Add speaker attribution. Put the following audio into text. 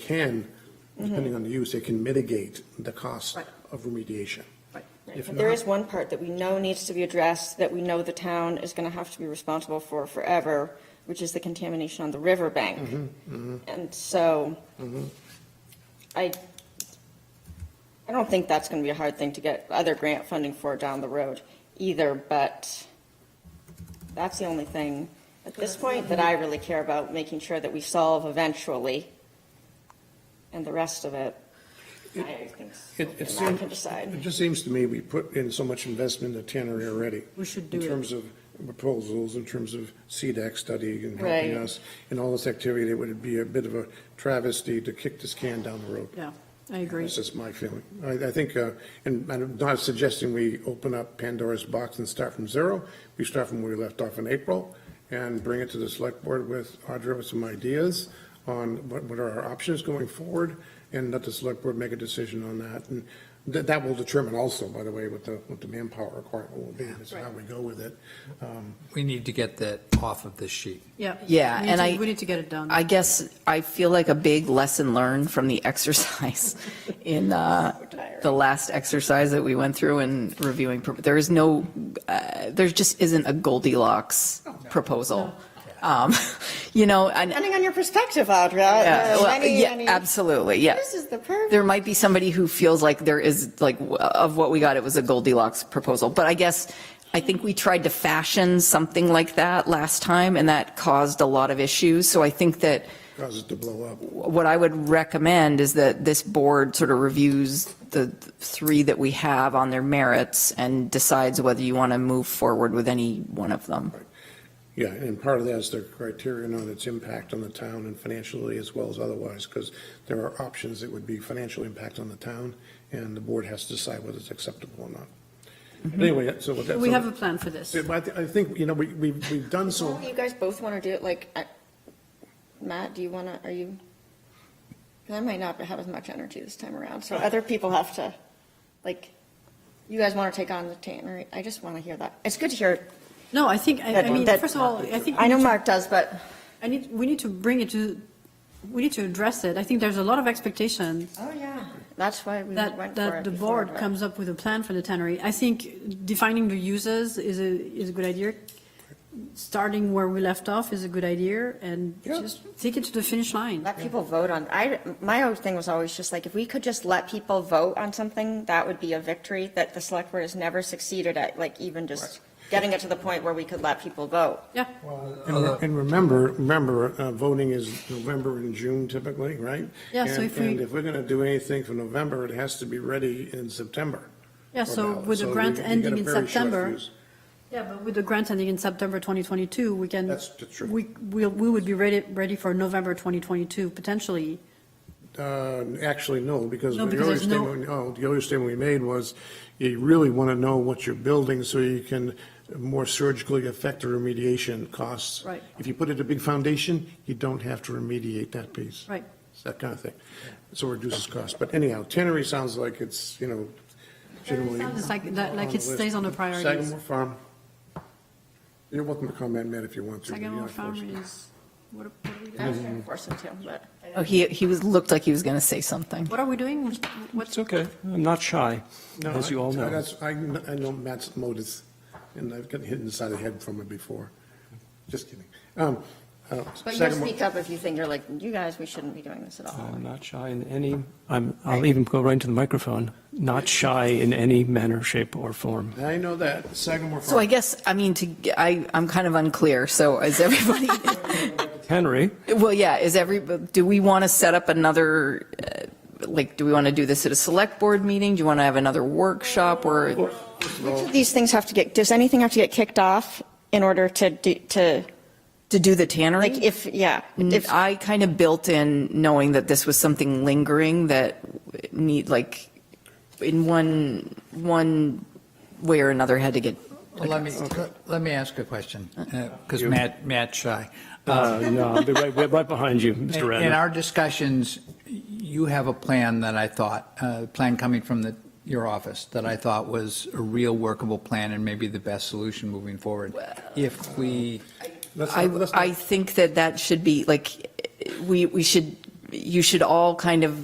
Speaker 1: can, depending on the use, it can mitigate the cost
Speaker 2: Mm-hmm. Right.
Speaker 1: of remediation.
Speaker 2: Right.
Speaker 1: If
Speaker 3: But There
Speaker 1: not-
Speaker 3: is one part that we know needs to be addressed, that we know the town is going to have to be responsible for forever, which is the contamination on the riverbank.
Speaker 1: Mm-hmm,
Speaker 3: And so I, I don't think that's going to be a hard thing to get other grant funding for down the road either, but that's the only thing at this point that I really care about, making sure that we solve eventually. And the rest of it, I think,
Speaker 1: It, it
Speaker 3: I
Speaker 1: seems,
Speaker 3: can decide.
Speaker 1: it just seems to me we put in so much investment in tannery already.
Speaker 2: We should do
Speaker 1: In
Speaker 2: it.
Speaker 1: terms of proposals, in terms of CDAC study and helping
Speaker 3: Right.
Speaker 1: us, and all this activity, it would be a bit of a travesty to kick this can down the road.
Speaker 2: Yeah, I agree.
Speaker 1: That's just my feeling. I, I think, uh, and I'm not suggesting we open up Pandora's box and start from zero. We start from where we left off in April and bring it to the select board with Audra with some ideas on what, what are our options going forward and let the select board make a decision on that. And that, that will determine also, by the way, what the, what the manpower requirement will be, is how we go with it. Um,
Speaker 4: We need to get that off of this sheet.
Speaker 2: Yeah.
Speaker 5: Yeah,
Speaker 2: We need
Speaker 5: and
Speaker 2: to-
Speaker 5: I-
Speaker 2: We need to get it done.
Speaker 5: I guess I feel like a big lesson learned from the exercise in uh, the last exercise that we went through in reviewing. pro- There is no, uh, there just isn't a Goldilocks proposal. Um, You know, and,
Speaker 3: Depending on your perspective, Audra.
Speaker 5: yeah,
Speaker 3: there's
Speaker 5: well,
Speaker 3: many,
Speaker 5: yeah,
Speaker 3: many-
Speaker 5: absolutely, yeah.
Speaker 3: This is the perfect.
Speaker 5: There might be somebody who feels like there is, like, w- of what we got, it was a Goldilocks proposal. But I guess, I think we tried to fashion something like that last time, and that caused a lot of issues. So I think that
Speaker 1: Cause it to blow up.
Speaker 5: what I would recommend is that this board sort of reviews the three that we have on their merits and decides whether you want to move forward with any one of them.
Speaker 1: Yeah, and part of that is the criterion on its impact on the town and financially as well as otherwise, because there are options that would be financial impact on the town, and the board has to decide whether it's acceptable or not. Anyway, so what that.
Speaker 2: Mm-hmm. We have a plan for this.
Speaker 1: Yeah, but I thi- I think, you know, we, we've, we've done so,
Speaker 3: You guys both want to do it, like, I- Matt, do you want to, are you? 'cause I might not have as much energy this time around, so other people have to, like, you guys want to take on the tannery? I just want to hear that. It's good to hear. it.
Speaker 2: No, I think, I I mean,
Speaker 3: That-
Speaker 2: first of all, I think.
Speaker 3: I
Speaker 2: we
Speaker 3: know
Speaker 2: need to-
Speaker 3: Mark does, but
Speaker 2: I need, we need to bring it to, we need to address it. I think there's a lot of expectation
Speaker 3: Oh, yeah. That's why we went for
Speaker 2: that,
Speaker 3: it.
Speaker 2: that the
Speaker 3: before,
Speaker 2: board
Speaker 3: but-
Speaker 2: comes up with a plan for the tannery. I think defining the uses is a, is a good idea. Starting where we left off is a good idea and just take it to the finish line.
Speaker 3: Let people vote on, I, my old thing was always just like, if we could just let people vote on something, that would be a victory that the select board has never succeeded at, like even just getting it to the point where we could let people vote.
Speaker 2: Yeah,
Speaker 1: uh, and re- and remember, remember, uh, voting is November and June typically, right?
Speaker 2: Yeah, so
Speaker 1: And-
Speaker 2: if we-
Speaker 1: And if we're gonna do anything for November, it has to be ready in September.
Speaker 2: yeah,
Speaker 1: for
Speaker 2: so
Speaker 1: ballot.
Speaker 2: with the
Speaker 1: you-
Speaker 2: grant
Speaker 1: you get
Speaker 2: ending
Speaker 1: a
Speaker 2: in
Speaker 1: very short
Speaker 2: September.
Speaker 1: fuse.
Speaker 2: Yeah, but with the grant ending in September 2022, we can.
Speaker 1: That's the truth.
Speaker 2: We, we, we would be ready, ready for November 2022, potentially.
Speaker 1: Uh, Actually, no, because
Speaker 2: No,
Speaker 1: the
Speaker 2: because
Speaker 1: earlier
Speaker 2: there's no-
Speaker 1: statement, oh, the earlier statement we made was, you really want to know what you're building so you can more surgically affect the remediation costs.
Speaker 2: Right.
Speaker 1: If you put it a big foundation, you don't have to remediate that piece.
Speaker 2: Right.
Speaker 1: It's that kind of thing. So it reduces cost. But anyhow, tannery sounds like it's, you know, generally.
Speaker 2: It's like, that- like
Speaker 1: on the
Speaker 2: it stays
Speaker 1: list.
Speaker 2: on the priorities.
Speaker 1: Sagamore Farm. You're welcome to comment, Matt, if you want to.
Speaker 2: Sagamore
Speaker 1: You're not forced.
Speaker 2: Farm is, what, are- what are we
Speaker 3: I
Speaker 2: doing?
Speaker 3: was gonna force them to, but.
Speaker 5: Oh, he, he was, looked like he was going to say something.
Speaker 2: What are we doing? What's,
Speaker 6: It's okay. I'm not shy,
Speaker 1: No,
Speaker 6: as you
Speaker 1: I-
Speaker 6: all know.
Speaker 1: That's, I, kn- I know Matt's motives, and I've gotten hit inside the head from it before. Just kidding. Um, uh,
Speaker 3: But you'll
Speaker 1: second one-
Speaker 3: speak up if you think you're like, you guys, we shouldn't be doing this at all.
Speaker 6: I'm not shy in any, I'm, I'll even go right into the microphone, not shy in any manner, shape, or form.
Speaker 1: I know that, Sagamore
Speaker 5: So I
Speaker 1: Farm.
Speaker 5: guess, I mean, to, I, I'm kind of unclear, so is everybody,
Speaker 6: Henry,
Speaker 5: well, yeah, is every, do we want to set up another, uh, like, do we want to do this at a select board meeting? Do you want to have another workshop or,
Speaker 3: Which of these things have to get, does anything have to get kicked off in order to, do- to,
Speaker 5: to do the
Speaker 3: like,
Speaker 5: tannery?
Speaker 3: if, yeah,
Speaker 5: If
Speaker 3: if,
Speaker 5: I kind of built in knowing that this was something lingering that need, like, in one, one way or another had to get,
Speaker 4: Well, let me, let me ask a question,
Speaker 1: Uh,
Speaker 4: because Matt, Matt's shy.
Speaker 6: uh, no, I'll be right, we're right behind you, Mr.
Speaker 4: In- In
Speaker 6: Radner.
Speaker 4: our discussions, you have a plan that I thought, uh, a plan coming from the, your office, that I thought was a real workable plan and maybe the best solution moving forward. If we,
Speaker 1: Let's
Speaker 5: I,
Speaker 1: not- let's not-
Speaker 5: I think that that should be, like, we, we should you should all kind of